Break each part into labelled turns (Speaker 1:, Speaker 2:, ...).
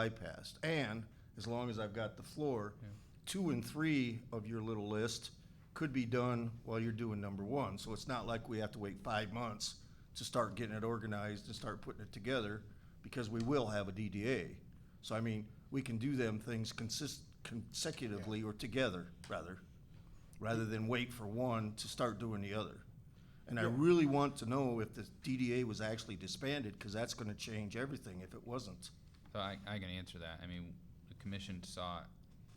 Speaker 1: bypassed. And as long as I've got the floor, two and three of your little list could be done while you're doing number one. So it's not like we have to wait five months to start getting it organized and start putting it together, because we will have a DDA. So I mean, we can do them things consist, consecutively or together, rather, rather than wait for one to start doing the other. And I really want to know if the DDA was actually disbanded, because that's gonna change everything if it wasn't.
Speaker 2: So I, I can answer that. I mean, the commission saw,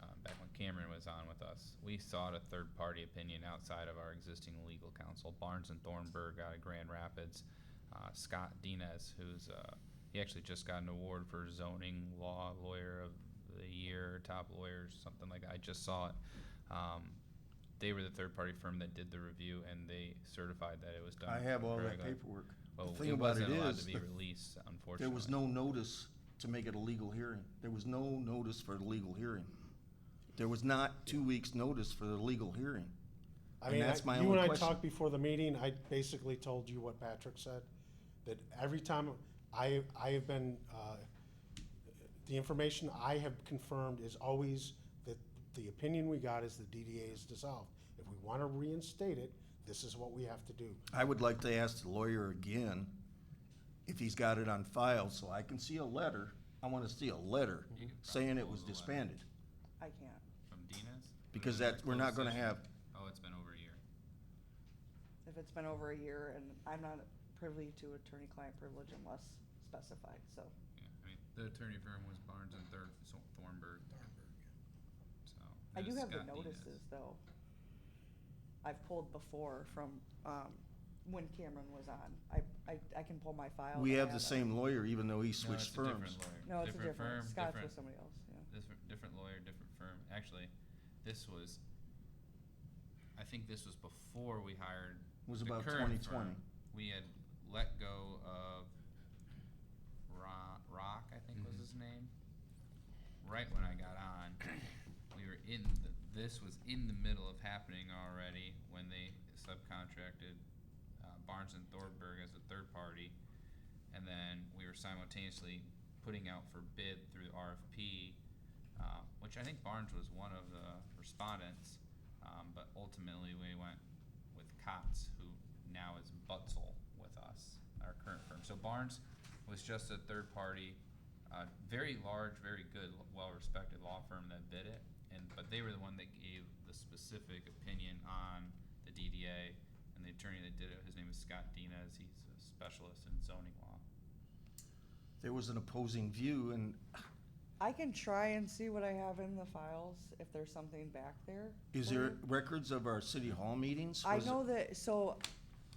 Speaker 2: uh, back when Cameron was on with us, we sought a third-party opinion outside of our existing legal counsel. Barnes and Thornburg out of Grand Rapids, uh, Scott Dinas, who's, uh, he actually just got an award for zoning law lawyer of the year, top lawyers, something like that. I just saw it. Um, they were the third-party firm that did the review, and they certified that it was done.
Speaker 1: I have all that
Speaker 2: correctly.
Speaker 1: paperwork.
Speaker 2: Well,
Speaker 1: The thing
Speaker 2: it
Speaker 1: about
Speaker 2: wasn't
Speaker 1: it
Speaker 2: allowed
Speaker 1: is
Speaker 2: to be
Speaker 1: that
Speaker 2: released, unfortunately.
Speaker 1: There was no notice to make it a legal hearing. There was no notice for the legal hearing. There was not two weeks' notice for the legal hearing.
Speaker 3: I
Speaker 1: And
Speaker 3: mean,
Speaker 1: that's
Speaker 3: I-
Speaker 1: my
Speaker 3: you
Speaker 1: only
Speaker 3: and I
Speaker 1: question.
Speaker 3: talked before the meeting, I basically told you what Patrick said, that every time I, I have been, uh, the information I have confirmed is always that the opinion we got is the DDA is dissolved. If we want to reinstate it, this is what we have to do.
Speaker 1: I would like to ask the lawyer again if he's got it on file, so I can see a letter. I want to see a letter saying it was disbanded,
Speaker 4: I can't.
Speaker 2: From Dinas?
Speaker 1: because that, we're not gonna have,
Speaker 2: Oh, it's been over a year.
Speaker 4: If it's been over a year and I'm not privy to attorney-client privilege unless specified, so.
Speaker 2: Yeah, I mean, the attorney firm was Barnes and Thor- Thor- Thornburg. So.
Speaker 4: I
Speaker 2: it
Speaker 4: do
Speaker 2: was
Speaker 4: have the
Speaker 2: Scott Dinas.
Speaker 4: notices though. I've pulled before from, um, when Cameron was on. I, I, I can pull my file.
Speaker 1: we
Speaker 4: but I
Speaker 1: have the
Speaker 4: haven't.
Speaker 1: same lawyer, even though he
Speaker 2: No,
Speaker 1: switched
Speaker 2: it's a different
Speaker 1: firms.
Speaker 2: lawyer.
Speaker 4: No, it's a
Speaker 2: firm,
Speaker 4: different, Scott's
Speaker 2: different-
Speaker 4: with somebody else, yeah.
Speaker 2: Different, different lawyer, different firm. Actually, this was, I think this was before we hired.
Speaker 1: Was
Speaker 2: the
Speaker 1: about
Speaker 2: current
Speaker 1: 2020.
Speaker 2: firm. We had let go of Ro- Rock, I think
Speaker 1: Mm-hmm.
Speaker 2: was his name. Right when I got on, we were in, the, this was in the middle of happening already when they subcontracted uh, Barnes and Thornburg as a third party. And then we were simultaneously putting out for bid through RFP, uh, which I think Barnes was one of the respondents. Um, but ultimately, we went with Kotz, who now is Butzel with us, our current firm. So Barnes was just a third party, uh, very large, very good, well respected law firm that bid it. And but they were the one that gave the specific opinion on the DDA and the attorney that did it. His name is Scott Dinas. He's a specialist in zoning law.
Speaker 1: There was an opposing view, and
Speaker 4: I can try and see what I have in the files, if there's something back there.
Speaker 1: is
Speaker 4: for you.
Speaker 1: there records of our city hall meetings?
Speaker 4: I
Speaker 1: Was it-
Speaker 4: know that, so,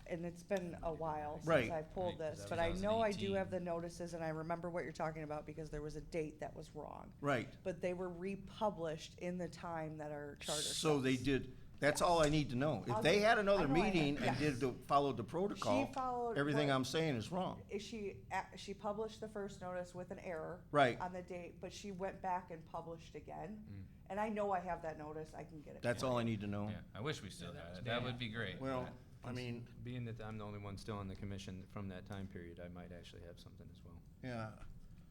Speaker 4: and it's been a while
Speaker 1: Right.
Speaker 4: since I pulled
Speaker 2: Right,
Speaker 4: this,
Speaker 2: that
Speaker 4: but I
Speaker 2: was
Speaker 4: know I do
Speaker 2: 2018.
Speaker 4: have the notices and I remember what you're talking about because there was a date that was wrong.
Speaker 1: Right.
Speaker 4: But they were republished in the time that our charter says.
Speaker 1: So they did, that's all I need to know. If they had another
Speaker 4: I know I have-
Speaker 1: meeting and
Speaker 4: yes.
Speaker 1: did the, followed the protocol,
Speaker 4: followed
Speaker 1: everything
Speaker 4: what-
Speaker 1: I'm saying is wrong.
Speaker 4: Is She, a- she published the first notice with an error.
Speaker 1: Right.
Speaker 4: On the date, but she went back and published again.
Speaker 2: Mm.
Speaker 4: And I know I have that notice, I can get it.
Speaker 1: That's all I need to know.
Speaker 2: Yeah, I wish we still
Speaker 5: that
Speaker 2: had
Speaker 5: was
Speaker 2: it. That
Speaker 5: bad.
Speaker 2: would be great.
Speaker 1: Well, I mean,
Speaker 5: Being that I'm the only one still on the commission from that time period, I might actually have something as well.
Speaker 1: yeah,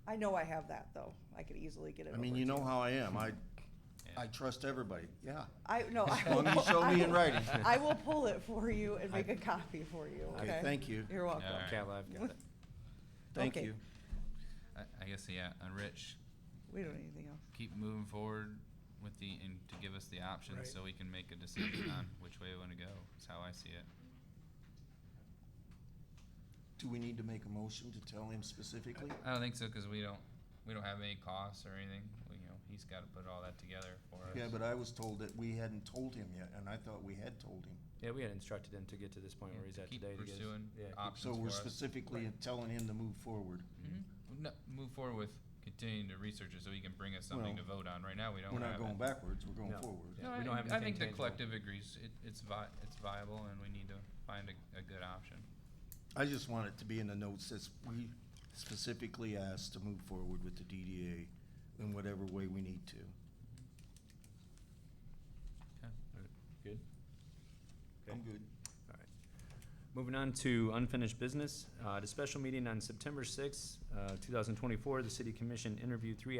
Speaker 4: I know I have that though, I could easily get it
Speaker 1: I
Speaker 4: over
Speaker 1: mean, you
Speaker 4: to
Speaker 1: know how I am. I, I trust everybody, yeah.
Speaker 4: I, no, I
Speaker 1: As
Speaker 4: will.
Speaker 1: long as you show
Speaker 4: I
Speaker 1: me in
Speaker 4: will-
Speaker 1: writing.
Speaker 4: I will pull it for you and make a copy for you, okay?
Speaker 1: Okay, thank you,
Speaker 4: You're welcome.
Speaker 2: All right.
Speaker 5: Cal, I've got it.
Speaker 1: thank
Speaker 4: Okay.
Speaker 1: you.
Speaker 2: I, I guess yeah. And Rich,
Speaker 4: We don't need anything else.
Speaker 2: keep moving forward with the and to give us the options
Speaker 3: Right.
Speaker 2: so we can make a decision on which way we want to go. Is how I see it.
Speaker 1: Do we need to make a motion to tell him specifically?
Speaker 2: I don't think so because we don't we don't have any costs or anything. We, you know, he's got to put all that together for us.
Speaker 1: Yeah, but I was told that we hadn't told him yet, and I thought we had told him.
Speaker 5: Yeah, we had instructed him to get to this point
Speaker 2: Yeah,
Speaker 5: where he's
Speaker 2: to
Speaker 5: at
Speaker 2: keep
Speaker 5: today. to get us-
Speaker 2: pursuing Uh,
Speaker 5: yeah, keep-
Speaker 2: options
Speaker 1: So
Speaker 2: for
Speaker 1: we're
Speaker 2: us.
Speaker 1: specifically telling him to move forward.
Speaker 2: hmm No, move forward with continuing to research it so he can bring us something to vote on. Right now, we don't.
Speaker 1: We're not
Speaker 2: have
Speaker 1: going
Speaker 2: it.
Speaker 1: backwards, we're going
Speaker 5: No.
Speaker 1: forward.
Speaker 5: Yeah,
Speaker 2: No,
Speaker 5: we
Speaker 2: I,
Speaker 5: don't have
Speaker 2: I
Speaker 5: anything
Speaker 2: think the
Speaker 5: tangible.
Speaker 2: collective agrees it, it's vi- it's viable and we need to find a, a good option.
Speaker 1: I just want it to be in the notes that we specifically asked to move forward with the DDA in whatever way we need to.
Speaker 2: Okay.
Speaker 5: Good? Okay.
Speaker 1: good.
Speaker 5: All right. Moving on to unfinished business, uh, at a special meeting on September sixth, uh, two thousand twenty-four, the city commission interviewed three